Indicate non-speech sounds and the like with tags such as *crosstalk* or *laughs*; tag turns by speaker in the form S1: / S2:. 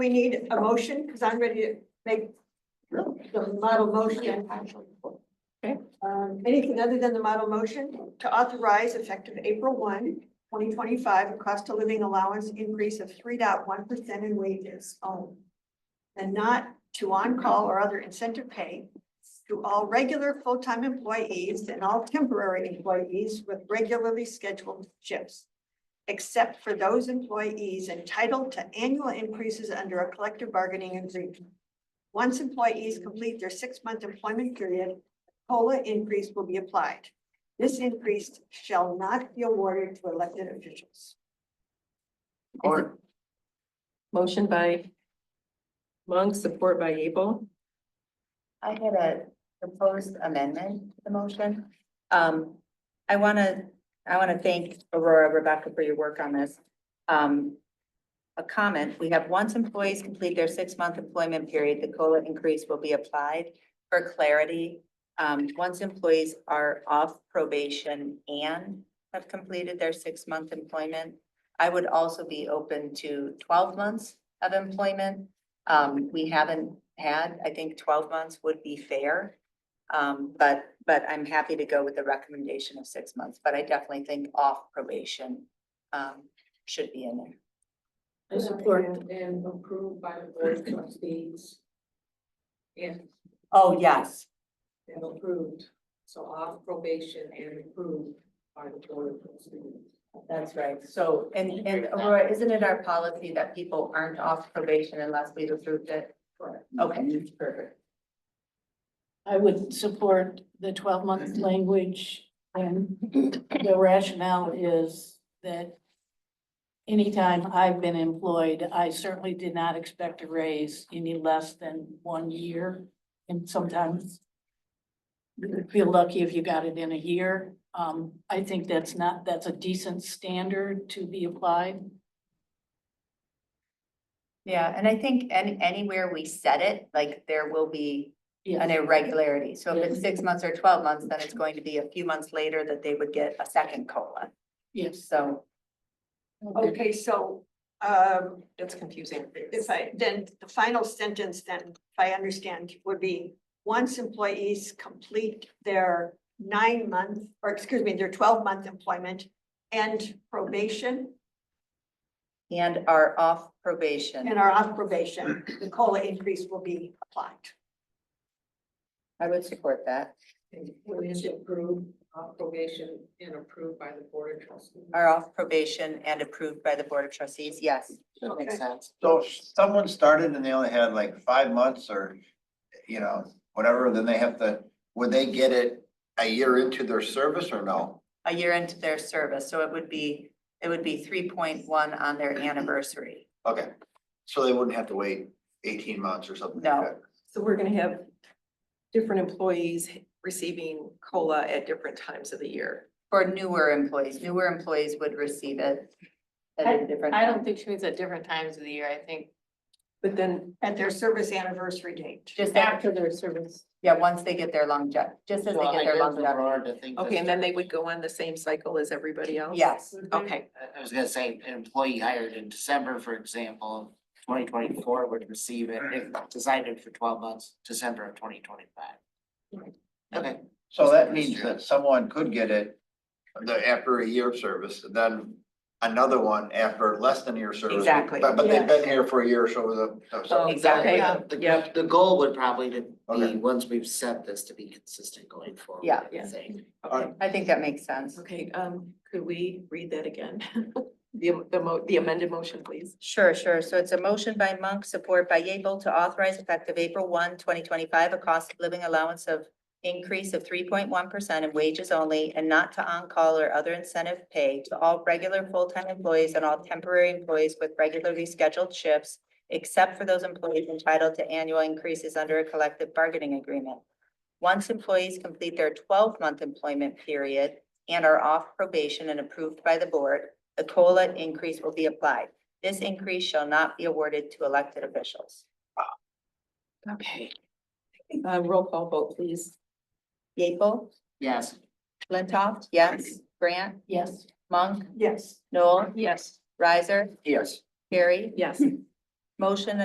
S1: We need a motion, because I'm ready to make the model motion.
S2: Okay.
S1: Um, anything other than the model motion to authorize effective April 1, 2025, a cost of living allowance increase of 3.1% in wages only. And not to on-call or other incentive pay to all regular full-time employees and all temporary employees with regularly scheduled shifts except for those employees entitled to annual increases under a collective bargaining agreement. Once employees complete their six-month employment period, COLA increase will be applied. This increase shall not be awarded to elected officials.
S2: Is it- Motion by Monk, support by Abel.
S3: I had a proposed amendment to the motion. Um, I wanna, I wanna thank Aurora Rebecca for your work on this. Um, a comment, we have once employees complete their six-month employment period, the COLA increase will be applied for clarity. Um, once employees are off probation and have completed their six-month employment, I would also be open to twelve months of employment. Um, we haven't had, I think twelve months would be fair. Um, but, but I'm happy to go with the recommendation of six months, but I definitely think off probation, um, should be in there.
S4: I support and approved by the board of trustees. And,
S3: Oh, yes.
S4: and approved, so off probation and approved by the board of trustees.
S3: That's right. So, and, and Aurora, isn't it our policy that people aren't off probation unless we've approved it?
S4: Correct.
S3: Okay, perfect.
S5: I would support the twelve month language and the rationale is that anytime I've been employed, I certainly did not expect a raise any less than one year. And sometimes you would feel lucky if you got it in a year. Um, I think that's not, that's a decent standard to be applied.
S3: Yeah, and I think any, anywhere we set it, like there will be an
S5: Yeah,
S3: irregularity. So if it's
S5: Yes.
S3: six months or twelve months, then it's going to be a few months later that they would get a second COLA.
S5: yes.
S3: So,
S1: Okay, so, um,
S2: That's confusing.
S1: if I, then the final sentence then, if I understand, would be once employees complete their nine-month, or excuse me, their twelve-month employment and probation,
S3: and are off
S1: and
S3: probation.
S1: are off probation, the COLA increase will be applied.
S3: I would support that.
S4: And is approved, off probation and approved by the board of trustees.
S3: Are off probation and approved by the Board of Trustees. Yes. that makes sense.
S6: So if someone started and they only had like five months or, you know, whatever, then they have to, would they get it a year into their service or no?
S3: A year into their service. So it would be, it would be three point one on their anniversary.
S6: Okay, so they wouldn't have to wait eighteen months or something
S3: No.
S6: like that?
S2: So we're gonna have different employees receiving COLA at different times of the year.
S3: For newer employees, newer employees would receive it at a different.
S7: I don't think she means at different times of the year, I think.
S2: But then,
S1: At their service anniversary date.
S3: Just after,
S7: their service.
S3: yeah, once they get their longevity, just as they get their longevity.
S2: okay, and then they would go on the same cycle as everybody else?
S3: Yes.
S2: Okay,
S8: I- I was gonna say, an employee hired in December, for example, twenty twenty-four would receive it if decided for twelve months, December of twenty twenty-five. Okay,
S6: So that means that someone could get it the, after a year of service, and then another one after less than a year of service.
S2: Exactly.
S6: But, but they've been here for a year, so the, so-
S8: Oh,
S2: Exactly.
S8: Yeah, the,
S2: Yep.
S8: the goal would probably to
S6: Okay.
S8: be, once we've set this, to be consistent going forward.
S3: Yeah.
S8: I
S2: Yeah.
S8: think.
S2: okay,
S3: I think that makes sense.
S2: okay, um, could we read that again? *laughs* The, the mo, the amended motion, please.
S3: Sure, sure. So it's a motion by Monk, support by Yable to authorize effective April 1, 2025, a cost of living allowance of increase of three point one percent in wages only and not to on-call or other incentive pay to all regular full-time employees and all temporary employees with regularly scheduled shifts, except for those employees entitled to annual increases under a collective bargaining agreement. Once employees complete their twelve-month employment period and are off probation and approved by the board, the COLA increase will be applied. This increase shall not be awarded to elected officials.
S2: Okay. Uh, roll call vote, please.
S3: Yeaple,
S8: Yes,
S3: Flintoff, yes. Grant,
S5: Yes.
S3: Monk,
S1: Yes.
S3: Noel,
S7: Yes.
S3: Riser,
S6: Yes.
S3: Carrie.
S2: Yes.
S3: Motion